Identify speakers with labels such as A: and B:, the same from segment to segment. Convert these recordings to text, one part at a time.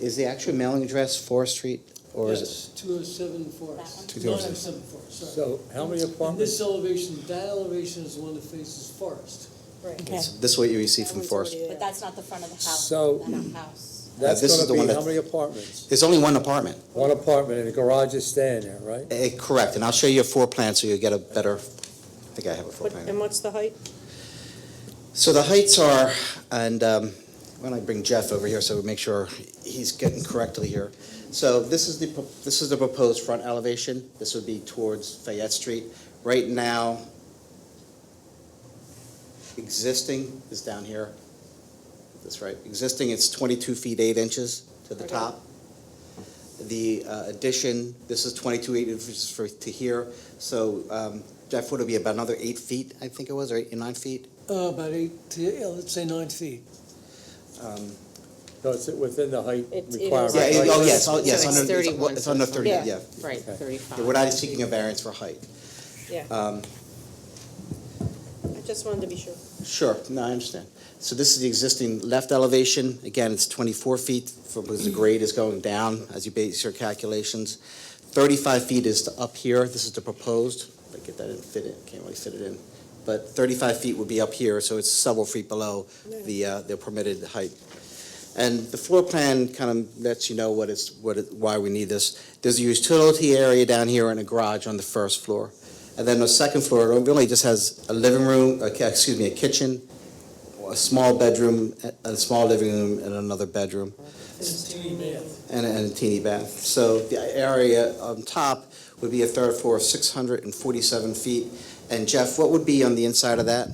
A: Is the actual mailing address Forest Street or is it?
B: Yes, two oh seven Forest.
A: That one? 207.
B: 207 Forest, sorry.
C: So how many
B: And
C: apartments?
B: this elevation, that elevation is the one that faces Forest.
D: Right.
A: It's This what you receive from Forest?
D: But that's not the front of the house.
C: So-
D: That house.
C: That's
A: This is the
C: gonna
A: one
C: be
A: that-
C: how many apartments?
A: There's only one apartment.
C: One apartment and a garage is staying there, right?
A: Eh, Correct, and I'll show you a floor plan so you'll get a better, I think I have a floor
E: What-
A: plan.
E: And what's the height?
A: So the heights are, and um, why don't I bring Jeff over here so we make sure he's getting correctly here. So this is the, pro- this is the proposed front elevation. This would be towards Fayette Street. Right now, existing is down here. That's right. Existing, it's 22 feet 8 inches to the
E: Okay.
A: top. The uh, addition, this is 22 8 inches for, to here. So um, Jeff, would it be about another 8 feet, I think it was, or 8, 9 feet?
B: Uh, About eight, to- yeah, let's say nine feet.
A: Um,
C: So it's within the height
E: It's- it is.
C: requirement?
A: Yeah, it-
C: right?
A: oh, yes, oh,
F: So
A: yes,
F: it's
A: under, it's-
F: 31,
A: it's
F: so
A: under
F: it's
A: thirty,
E: not-
A: yeah.
F: Right,
C: Okay.
F: thirty-five.
A: We're not seeking a variance for height.
E: Yeah,
A: Um,
E: I just wanted to be sure.
A: Sure, no, I understand. So this is the existing left elevation. Again, it's 24 feet from, because the grade is going down as you base your calculations. 35 feet is to up here. This is the proposed. I get that didn't fit it, can't really fit it in. But 35 feet would be up here, so it's several feet below the, uh, the permitted height. And the floor plan kind of lets you know what it's, what, it- why we need this. There's a utility area down here and a garage on the first floor. And then the second floor, it really just has a living room, a ki- excuse me, a kitchen, a small bedroom, a- a small living room, and another bedroom, and a- and a teeny bath. So the area on top would be a third floor of 647 feet. And Jeff, what would be on the inside of that?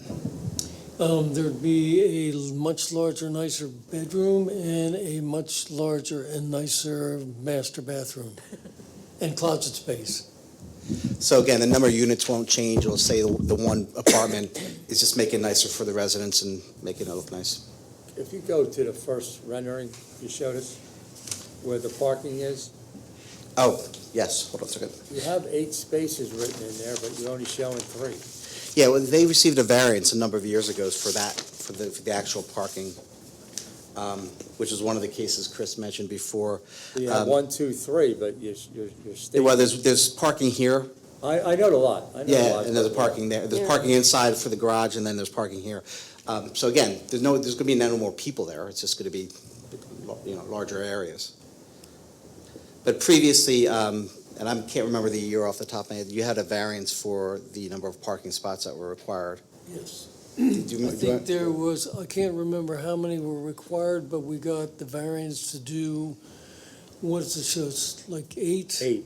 B: Um, There'd be a much larger, nicer bedroom and a much larger and nicer master bathroom and closet space.
A: So again, the number of units won't change, it'll say the the one apartment is just making nicer for the residents and making it look nice.
C: If you go to the first rendering you showed us, where the parking is,
A: Oh, yes, hold on a second.
C: you have eight spaces written in there, but you're only showing three.
A: Yeah, well, they received a variance a number of years ago for that, for the, for the actual parking, um, which is one of the cases Chris mentioned before.
C: So You
A: Um,
C: have one, two, three, but you're, you're you're stating.
A: Well, there's, there's parking here,
C: I, I know the lot, I know the
A: yeah,
C: lot,
A: and there's a
C: but-
A: parking there, there's
E: Yeah.
A: parking inside for the garage, and then there's parking here. Um, so again, there's no, there's gonna be no more people there, it's just gonna be, you know, larger areas. But previously, um, and I can't remember the year off the top of my head, you had a variance for the number of parking spots that were required.
B: Yes.
A: Do you- do you-
B: I think there was, I can't remember how many were required, but we got the variance to do, what is it, so it's like eight?
C: Eight,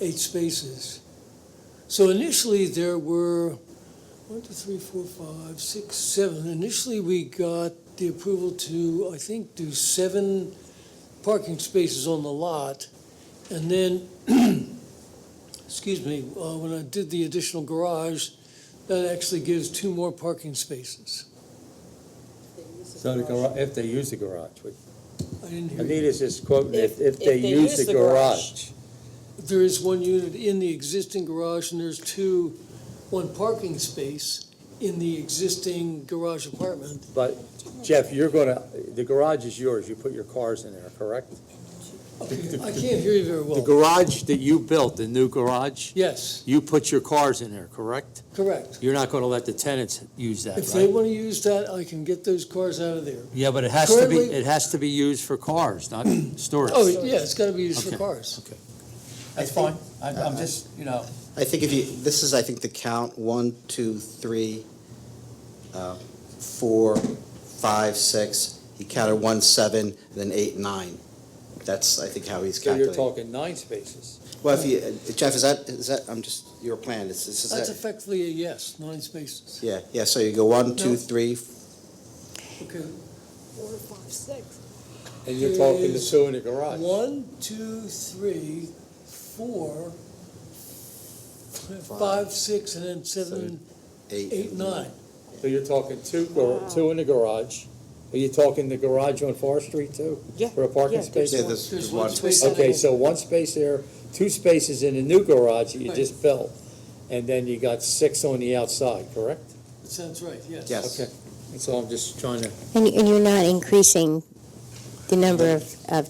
B: eight spaces. So initially, there were one, two, three, four, five, six, seven. Initially, we got the approval to, I think, do seven parking spaces on the lot. And then, excuse me, uh, when I did the additional garage, that actually gives two more parking spaces.
C: so the garage, if they use the garage, which-
B: I didn't hear you.
C: Anita's just quoting, if,
E: If-
C: if they use the garage.
B: There is one unit in the existing garage, and there's two, one parking space in the existing garage apartment.
C: But Jeff, you're gonna, the garage is yours, you put your cars in there, correct?
B: I can't hear you very
C: The
B: well.
C: garage that you built, the new garage,
B: Yes,
C: you put your cars in there, correct?
B: correct.
C: You're not gonna let the tenants use that,
B: If they
C: right?
B: want to use that, I can get those cars out of there.
C: Yeah, but it has to be,
B: Currently-
C: it has to be used for cars, not storage.
B: Oh, yeah, it's got to be used for
C: Okay.
B: cars.
C: That's fine, I'm, I'm just, you know.
A: I think if you, this is, I think, the count, one, two, three, uh, four, five, six. He counted one, seven, and then eight, nine. That's, I think, how he's
C: So you're
A: calculating.
C: talking nine spaces.
A: Well, if you, uh, Jeff, is that, is that, I'm just, your plan, is, is
B: That's
A: that?
B: effectively a yes, nine spaces.
A: Yeah, yeah, so you go one, two,
B: No.
A: three,
B: Okay.
D: Four, five, six.
C: And
B: you're talking the
C: two in the garage.
B: One, two, three, four, five, six, and then seven,
A: eight.
B: eight, nine.
C: So you're talking two, gar- two in the garage. Are you talking the garage on Forest Street too?
E: Yeah,
C: For a parking
E: yeah, there's
C: space?
A: Yeah,
E: one.
A: there's,
B: There's
A: there's
B: one
A: one.
B: space.
C: Okay, so one space there, two spaces in the new garage that you
B: Right.
C: just built, and then you got six on the outside, correct?
B: That sounds right, yes.
A: Yes.
C: Okay, so I'm just trying to
G: And, and you're not increasing the number of, of